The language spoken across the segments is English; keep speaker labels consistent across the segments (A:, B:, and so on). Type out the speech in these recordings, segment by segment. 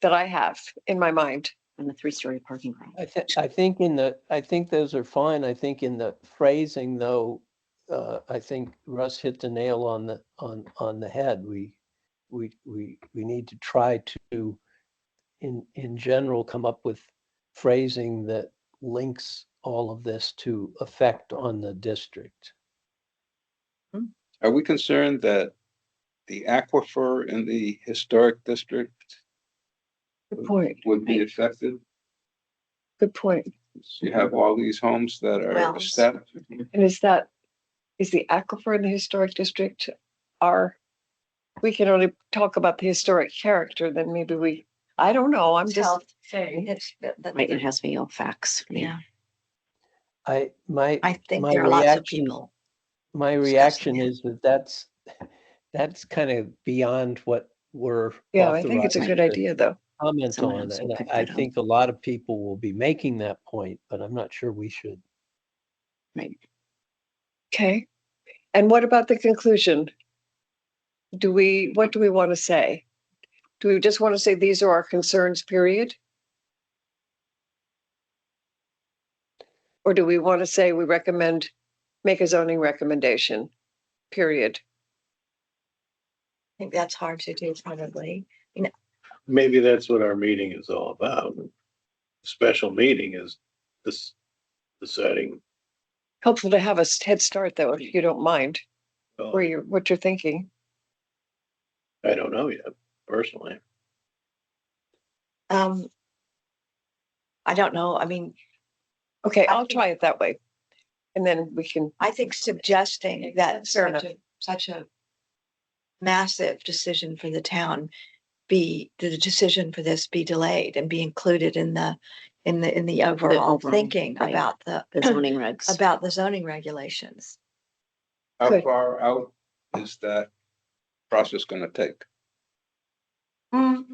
A: that I have in my mind.
B: and the three-story parking garage.
C: I think, I think in the, I think those are fine. I think in the phrasing though, uh, I think Russ hit the nail on the, on, on the head. We, we, we, we need to try to, in, in general, come up with phrasing that links all of this to effect on the district.
D: Are we concerned that the aquifer in the historic district
A: Good point.
D: would be affected?
A: Good point.
D: You have all these homes that are
B: Wells.
D: set,
A: And is that, is the aquifer in the historic district are, we can only talk about the historic character, then maybe we, I don't know, I'm just.
B: Right, it has to be all facts.
E: Yeah,
C: I, my,
E: I think
C: my
E: there are lots of
C: reaction-
E: people.
C: my
E: discussing
C: reaction
E: it.
C: is that that's, that's kind of beyond what we're.
A: Yeah, I think it's a good
C: authorized to
A: idea, though.
C: comment
B: Someone
C: on
B: else
C: it.
B: will
C: and
B: pick
C: I I
B: that up.
C: think a lot of people will be making that point, but I'm not sure we should.
A: Okay. And what about the conclusion? Do we, what do we want to say? Do we just want to say these are our concerns, period? Or do we want to say we recommend, make a zoning recommendation, period?
E: I think that's hard to do probably.
F: maybe that's what our meeting is all about. Special meeting is this deciding.
A: Helpful to have a s- head start, though, if you don't mind,
F: well,
A: where you're, what you're thinking.
F: I don't know yet, personally.
E: Um, I don't know. I mean,
A: Okay,
E: I
A: I'll
E: think-
A: try it that way. And then we can,
E: I think suggesting that
A: Fair enough.
E: such a, such a massive decision for the town be, the decision for this be delayed and be included in the, in the, in the overall
B: overall,
E: thinking
B: right.
E: about the,
B: The zoning regs.
E: about the zoning regulations.
D: how
A: Good.
D: far out is that process gonna take?
E: Mm,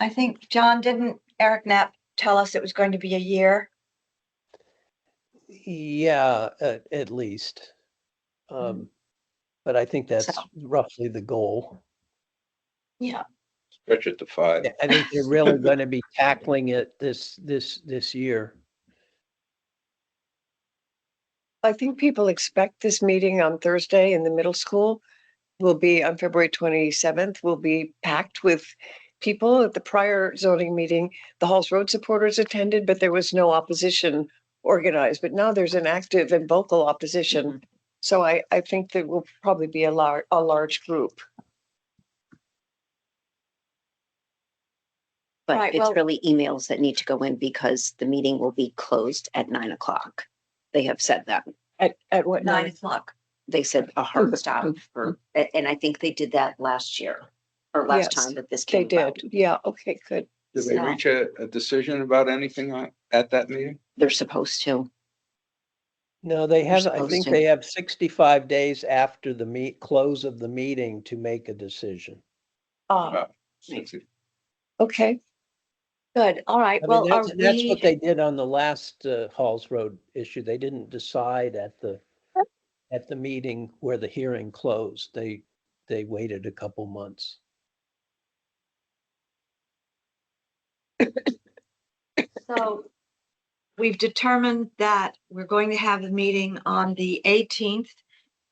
E: I think, John, didn't Eric Knapp tell us it was going to be a year?
C: Yeah, at, at least.
B: Mm-hmm.
C: Um, But I think that's roughly the goal.
E: Yeah.
D: Stretch it to five.
C: I think they're really going to be tackling it this, this, this year.
A: I think people expect this meeting on Thursday in the middle school will be on February twenty-seventh, will be packed with people at the prior zoning meeting. The Halls Road supporters attended, but there was no opposition organized, but now there's an active and vocal opposition. So I, I think there will probably be a lar- a large group.
B: But
E: Right,
B: it's
E: well-
B: really emails that need to go in because the meeting will be closed at nine o'clock. They have said that.
A: At, at what
E: Nine
A: night?
E: o'clock.
B: They said a
A: Mm-hmm.
B: hard stop for, a- and I think they did that last year or last
A: Yes,
B: time that this
A: They
B: came
A: did.
B: about.
A: Yeah, okay, good.
D: Did they
E: No.
D: reach a, a decision about anything on- at that meeting?
B: They're supposed to.
C: No, they have, I
B: supposed
C: think
B: to.
C: they have 65 days after the meet, close of the meeting to make a decision.
A: Ah, okay.
E: Good. All right.
C: I mean,
E: Well, are
C: that's, that's
E: we-
C: what they did on the last uh, Halls Road issue. They didn't decide at the, at the meeting where the hearing closed. They, they waited a couple months.
E: So we've determined that we're going to have a meeting on the eighteenth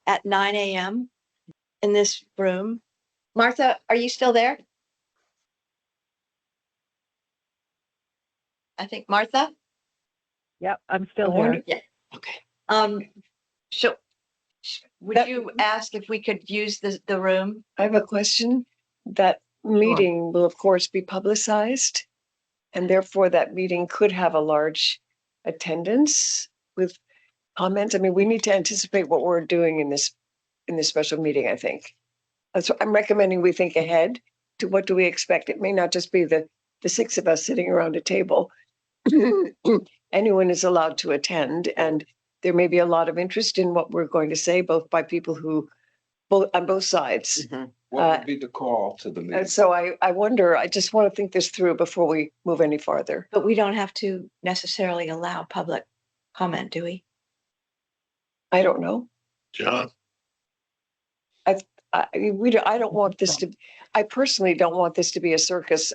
E: at nine AM in this room. Martha, are you still there? I think Martha?
G: Yep, I'm still
A: Wonder-
G: here.
B: Okay.
E: Um, so sh- would
A: That-
E: you ask if we could use the, the room?
A: I have a question. That meeting will of course be publicized. And therefore that meeting could have a large attendance with comments. I mean, we need to anticipate what we're doing in this, in this special meeting, I think. That's what I'm recommending we think ahead to what do we expect? It may not just be the, the six of us sitting around a table. Anyone is allowed to attend and there may be a lot of interest in what we're going to say, both by people who, both, on both sides.
B: Mhm.
A: Uh,
D: What would be the call to the meeting?
A: And so I, I wonder, I just want to think this through before we move any farther.
E: But we don't have to necessarily allow public comment, do we?
A: I don't know.
F: John,
A: I, I- we, don't- I don't want this to, I personally don't want this to be a circus